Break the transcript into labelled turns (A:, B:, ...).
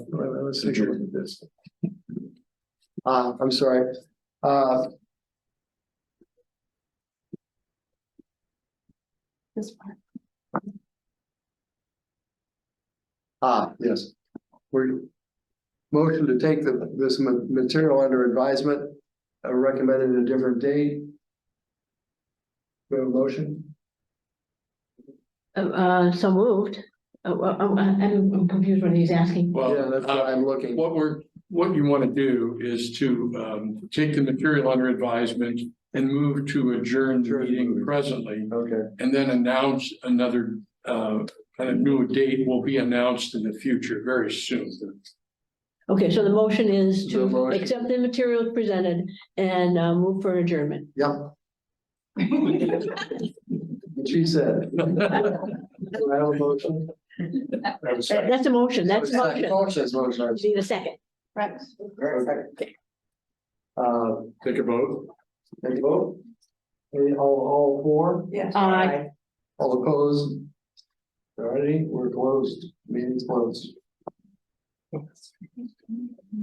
A: let's take a look at this. Uh, I'm sorry, uh,
B: This part.
A: ah, yes. We're, motion to take the, this ma- material under advisement, uh, recommended a different date. We have a motion,
B: Uh, Uh, so moved. Uh, well, I'm, I'm I'm confused what he's asking.
A: yeah,
C: Well,
A: that's what
C: uh,
A: I'm looking,
C: what we're, what you want to do is to um take the material under advisement and move to adjourn the
A: Adjourn.
C: meeting presently
A: okay,
C: and then announce another uh kind of new date will be announced in the future very soon.
B: Okay, so the motion is
A: The
B: to
A: motion.
B: accept the material presented and uh, move for adjournment.
A: yep. What She said. Do I have a motion?
B: That- That's a motion, that's a motion.
A: Motion's motion, I'm sorry.
B: Need a second.
A: Okay. Uh,
C: Take a vote.
A: Any vote? Any, all, all four?
D: Yes.
B: Aye.
A: All opposed? Alrighty, we're closed, meeting's closed.